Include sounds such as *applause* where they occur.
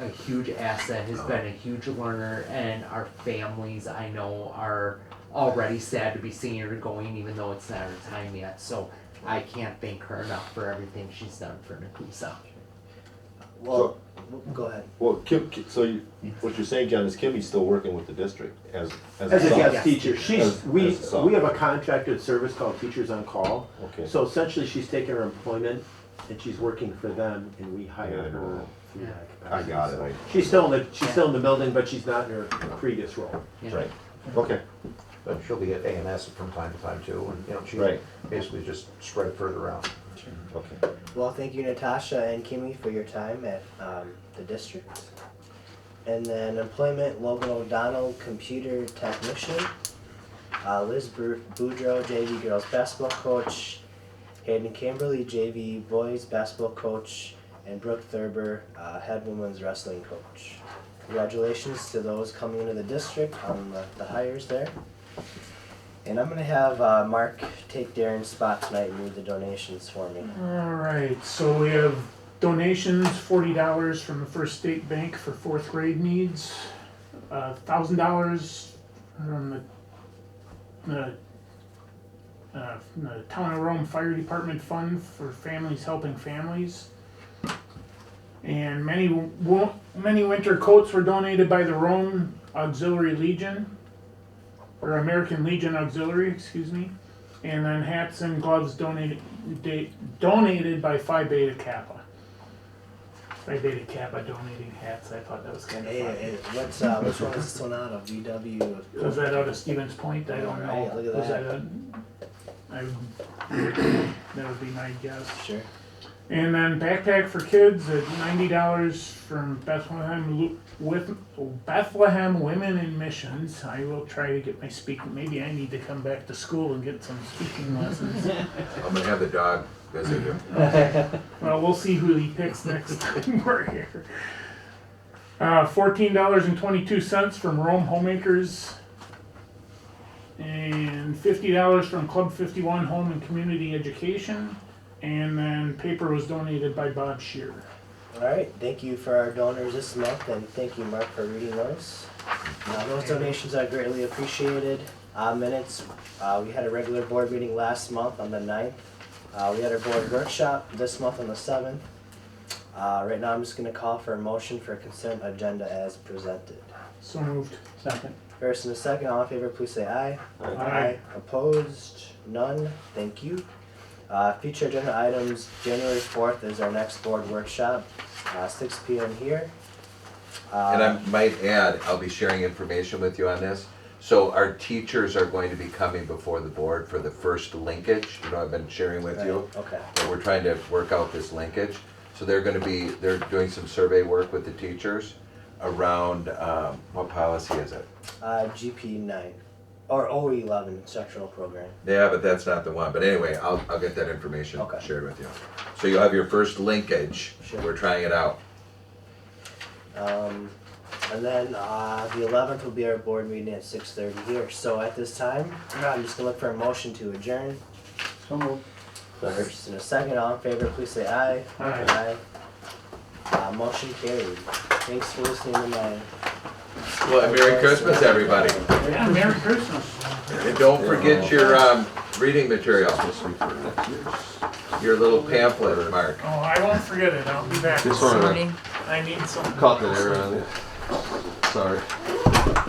a huge asset, has been a huge learner, and our families I know are already sad to be seeing her going, even though it's not her time yet. So I can't thank her enough for everything she's done for Nakusa. Well, go ahead. Well, Kim, so you, what you're saying, John, is Kimmy's still working with the district as, as a As a sub? guest teacher, she's, As- we, as a sub. we have a contracted service called Teachers on Call. Okay. So essentially, she's taking her employment and she's working for them and we Yeah, I hire her know. through that I capacity. got it, I, She's still in the, she's still in the building, but she's not in her previous role. Yeah. right, okay, But she'll be at ANS from time to time too, and, you know, Right. she basically just spread further out. okay. Well, thank you, Natasha and Kimmy, for your time at um, the district. And then employment, Logan O'Donnell, computer technician. Uh, Liz Bru- Boudreau, JV girls basketball coach. Hayden Camberly, JV boys basketball coach. And Brooke Thurber, uh, head women's wrestling coach. Congratulations to those coming into the district on the, the hires there. And I'm gonna have uh, Mark take Darren's spot tonight and read the donations for me. All right, so we have donations, forty dollars from the First State Bank for fourth grade needs, uh, thousand dollars from the, the, uh, from the Town of Rome Fire Department Fund for families helping families. And many, wo- many winter coats were donated by the Rome Auxiliary Legion, or American Legion Auxiliary, excuse me. And then hats and gloves donated, da- donated by Phi Beta Kappa. Phi Beta Kappa donating hats. I thought that was kind of Hey, funny. hey, what's uh, which one is this one out of? VW. Was that out of Stevens Point? I don't know. Alright, look at Was that. that a, I, that would be my guess. Sure. And then backpack for kids at ninety dollars from Bethlehem Lu- with Bethlehem Women in Missions. I will try to get my speaking. Maybe I need to come back to school and get some speaking lessons. I'm gonna have the dog visit you. Well, we'll see who he picks next *laughs* time we're here. Uh, fourteen dollars and twenty-two cents from Rome Homemakers, and fifty dollars from Club Fifty One Home and Community Education, and then paper was donated by Bob Shear. All right. Thank you for our donors this month, and thank you, Mark, for reading those. Uh, those donations are greatly appreciated. Uh, minutes. Uh, we had a regular board meeting last month on the 9th. Uh, we had our board workshop this month on the seventh. Uh, right now, I'm just going to call for a motion for consent agenda as presented. So moved. Second. First and a second, all in favor, please say aye. Aye. Opposed? None? Thank you. Uh, future agenda items, January fourth is our next board workshop, uh, six P M here. And I Uh, might add, I'll be sharing information with you on this. So our teachers are going to be coming before the board for the first linkage, you know, I've been sharing with you. right, Okay, But we're trying to work out this linkage. So they're gonna be, they're doing some survey work with the teachers around, um, what policy is it? uh, G P nine, or O E eleven, instructional program. Yeah, but that's not the one. But anyway, I'll, I'll get that information Okay. shared with you. So you'll have your first linkage. Sure. We're trying it out. Um, and then, uh, the eleventh will be our board meeting at six thirty here, so at this time, I'm just gonna look for a motion to adjourn. First and a second, all in favor, please say aye. Aye. Aye. Uh, motion carried. Thanks for listening to my. Well, and Merry Christmas, everybody. Yeah, Merry Christmas. And don't forget your um, reading material, your little pamphlet, Mark. Oh, I won't forget it. I'll be back. This one, I need some. caught the error on it, sorry.